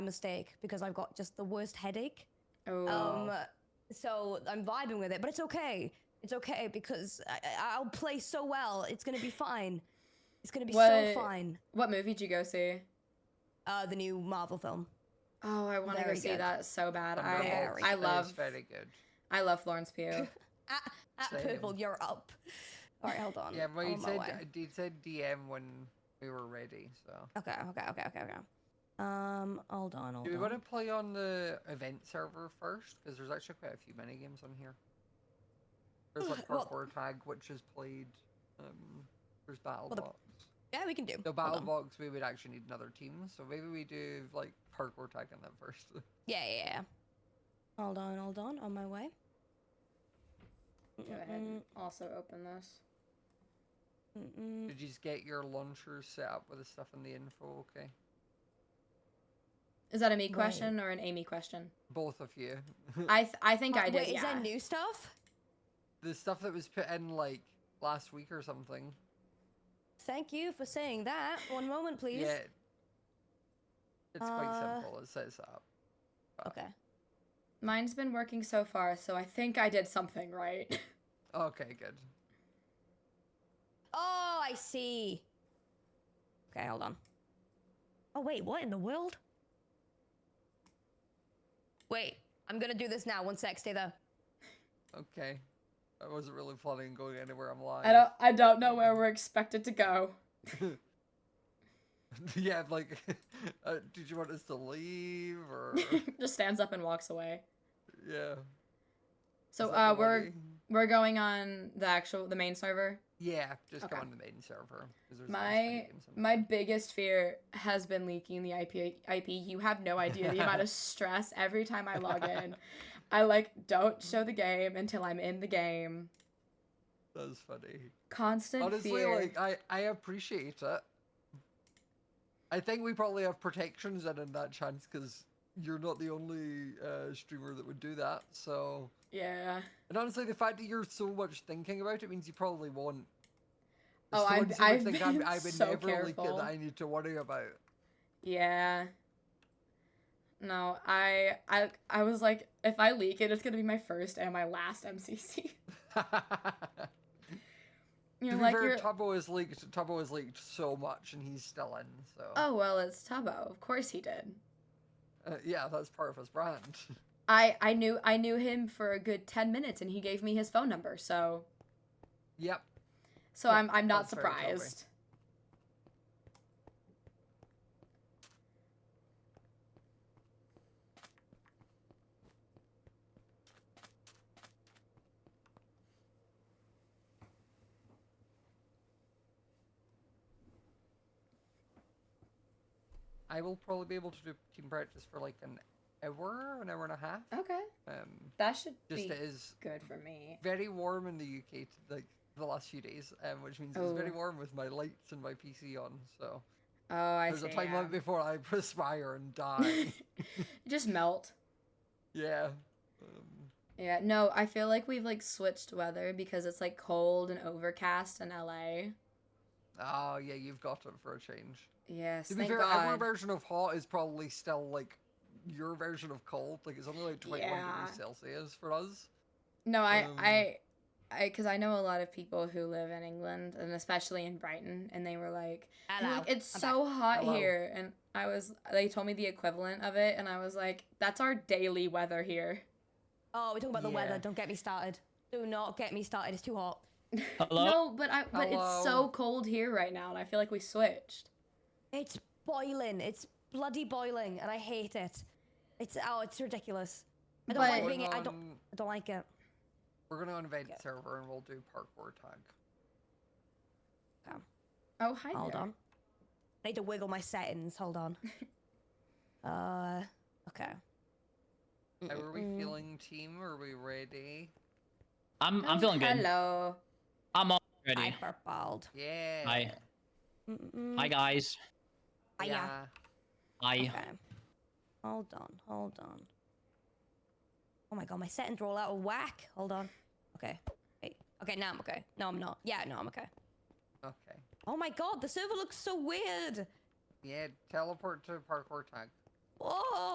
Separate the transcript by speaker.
Speaker 1: mistake because I've got just the worst headache.
Speaker 2: Oh,
Speaker 1: Um, so I'm vibing with it, but it's okay. It's okay because I, I- I'll play so well. It's gonna be fine. It's gonna be so
Speaker 2: What-
Speaker 1: fine.
Speaker 2: what movie did you go see?
Speaker 1: Uh, the new Marvel film.
Speaker 2: Oh, I want to go
Speaker 1: Very
Speaker 2: see
Speaker 1: good.
Speaker 2: that so bad. I
Speaker 1: Very
Speaker 2: I
Speaker 1: good.
Speaker 2: love
Speaker 3: very good.
Speaker 2: I love Florence Pugh.
Speaker 1: At, at
Speaker 3: Same.
Speaker 1: purple, you're up. All right, hold on.
Speaker 3: Yeah, well,
Speaker 1: I'm
Speaker 3: you
Speaker 1: on my
Speaker 3: said uh,
Speaker 1: way.
Speaker 3: you said DM when we were ready. So
Speaker 1: Okay, okay, okay, okay, okay. Um, hold on, hold
Speaker 3: do we
Speaker 1: on.
Speaker 3: want to play on the event server first? Because there's actually quite a few mini games on here. There's like
Speaker 1: Well-
Speaker 3: parkour tag, which is played. Um, there's battle
Speaker 1: Well, the-
Speaker 3: box.
Speaker 1: Yeah, we can do.
Speaker 3: The
Speaker 1: Hold
Speaker 3: battle
Speaker 1: on.
Speaker 3: box, we would actually need another team. So maybe we do like parkour tag on that first.
Speaker 1: Yeah, yeah, yeah. Hold on, hold on. On my way.
Speaker 2: Go ahead and also open this.
Speaker 1: Mm-mm.
Speaker 3: Did you just get your launchers set up with the stuff in the info? Okay,
Speaker 2: Is that a me
Speaker 1: Right.
Speaker 2: question or an Amy question?
Speaker 3: both of you.
Speaker 2: I th- I think I
Speaker 1: Uh, Wait,
Speaker 2: did.
Speaker 1: is
Speaker 2: yeah.
Speaker 1: there new stuff?
Speaker 3: the stuff that was put in like last week or something.
Speaker 1: Thank you for saying that. One moment, please.
Speaker 3: Yeah. It's quite
Speaker 1: Uh,
Speaker 3: simple. It sets it up.
Speaker 1: Okay.
Speaker 2: Mine's been working so far, so I think I did something right.
Speaker 3: Okay, good.
Speaker 1: Oh, I see. Okay, hold on. Oh, wait, what in the world? Wait, I'm gonna do this now. One sec, stay there.
Speaker 3: Okay. I wasn't really planning on going anywhere. I'm lying.
Speaker 2: I don't I don't know where we're expected to go.
Speaker 3: yeah, I'm like, uh, did you want us to leave or?
Speaker 2: Just stands up and walks away.
Speaker 3: yeah.
Speaker 2: So
Speaker 3: is that
Speaker 2: uh,
Speaker 3: the
Speaker 2: we're
Speaker 3: one you-
Speaker 2: we're going on the actual the main server.
Speaker 3: Yeah, just
Speaker 2: Okay.
Speaker 3: come on the main server. 'cause there's less
Speaker 2: My
Speaker 3: items and
Speaker 2: my
Speaker 3: stuff.
Speaker 2: biggest fear has been leaking the IP. IP. You have no idea the amount of stress every time I log in. I like don't show the game until I'm in the game.
Speaker 3: That's funny.
Speaker 2: Constant
Speaker 3: Honestly,
Speaker 2: fear.
Speaker 3: like I I appreciate it. I think we probably have protections in in that chance because you're not the only uh, streamer that would do that. So.
Speaker 2: yeah.
Speaker 3: And honestly, the fact that you're so much thinking about it means you probably won't.
Speaker 2: Oh, I've-
Speaker 3: much that I
Speaker 2: I've
Speaker 3: think
Speaker 2: been
Speaker 3: I would
Speaker 2: so
Speaker 3: never leak it
Speaker 2: careful.
Speaker 3: that I need to worry about.
Speaker 2: Yeah. No, I I I was like, if I leak it, it's gonna be my first and my last MCC.
Speaker 3: to
Speaker 2: You're
Speaker 3: be
Speaker 2: like,
Speaker 3: fair,
Speaker 2: you're,
Speaker 3: Tubbo has leaked. Tubbo has leaked so much, and he's still in. So
Speaker 2: oh well, it's Tubbo. Of course he did.
Speaker 3: uh, yeah, that's part of his brand.
Speaker 2: I I knew I knew him for a good ten minutes, and he gave me his phone number. So
Speaker 3: yep.
Speaker 2: so I'm I'm not
Speaker 3: That's very Tubby.
Speaker 2: surprised.
Speaker 3: I will probably be able to do team practice for like an hour, an hour and a half.
Speaker 2: Okay,
Speaker 3: Um,
Speaker 2: that should
Speaker 3: just
Speaker 2: be
Speaker 3: it is
Speaker 2: good for me.
Speaker 3: very warm in the UK to, like the last few days, um, which means it's very
Speaker 2: Oh.
Speaker 3: warm with my lights and my PC on. So
Speaker 2: Oh, I
Speaker 3: There's
Speaker 2: see.
Speaker 3: a time
Speaker 2: yeah.
Speaker 3: limit before I perspire and die.
Speaker 2: Just melt.
Speaker 3: yeah. Um,
Speaker 2: Yeah. No, I feel like we've like switched weather because it's like cold and overcast in LA.
Speaker 3: oh yeah, you've got it for a change.
Speaker 2: Yes.
Speaker 3: To be
Speaker 2: thank
Speaker 3: fair, our
Speaker 2: God.
Speaker 3: version of hot is probably still like your version of cold. Like it's only like 21
Speaker 2: Yeah.
Speaker 3: degrees Celsius for us.
Speaker 2: No, I,
Speaker 3: Um,
Speaker 2: I, I, because I know a lot of people who live in England and especially in Brighton, and they were like, "You're
Speaker 1: Hello.
Speaker 2: like, it's
Speaker 1: I'm
Speaker 2: so hot
Speaker 3: Hello.
Speaker 2: here, and I was, they told me the equivalent of it, and I was like, that's our daily weather here.
Speaker 1: Oh, we're talking about the
Speaker 3: Yeah.
Speaker 1: weather. Don't get me started. Do not get me started. It's too hot.
Speaker 4: Hello?
Speaker 2: No, but I, but it's so
Speaker 3: Hello.
Speaker 2: cold here right now, and I feel like we switched.
Speaker 1: It's boiling. It's bloody boiling, and I hate it. It's oh, it's ridiculous. I don't
Speaker 2: But-
Speaker 1: like
Speaker 3: We're
Speaker 1: being.
Speaker 3: going
Speaker 1: I don't.
Speaker 3: on-
Speaker 1: I don't like it.
Speaker 3: We're gonna invade
Speaker 1: Okay.
Speaker 3: server and we'll do parkour tag.
Speaker 2: Oh, hi
Speaker 1: Hold
Speaker 2: there.
Speaker 1: on. I need to wiggle my settings. Hold on. uh, okay.
Speaker 3: How are we
Speaker 1: Mm-mm.
Speaker 3: feeling, team? Are we ready?
Speaker 4: I'm I'm
Speaker 2: Oh,
Speaker 4: feeling good.
Speaker 2: Hello.
Speaker 4: I'm all
Speaker 1: I
Speaker 4: ready.
Speaker 1: purpled.
Speaker 3: Yeah.
Speaker 1: Mm-mm.
Speaker 4: Hi guys.
Speaker 1: Ah, yeah.
Speaker 3: Yeah.
Speaker 4: Hi.
Speaker 1: Okay. Hold on. Hold on. Oh my god, my settings are all out of whack. Hold on. Okay. Wait. Okay, now I'm okay. No, I'm not. Yeah, no, I'm okay.
Speaker 3: Okay.
Speaker 1: Oh my god, the server looks so weird.
Speaker 3: Yeah. Teleport to parkour tag.
Speaker 1: Whoa.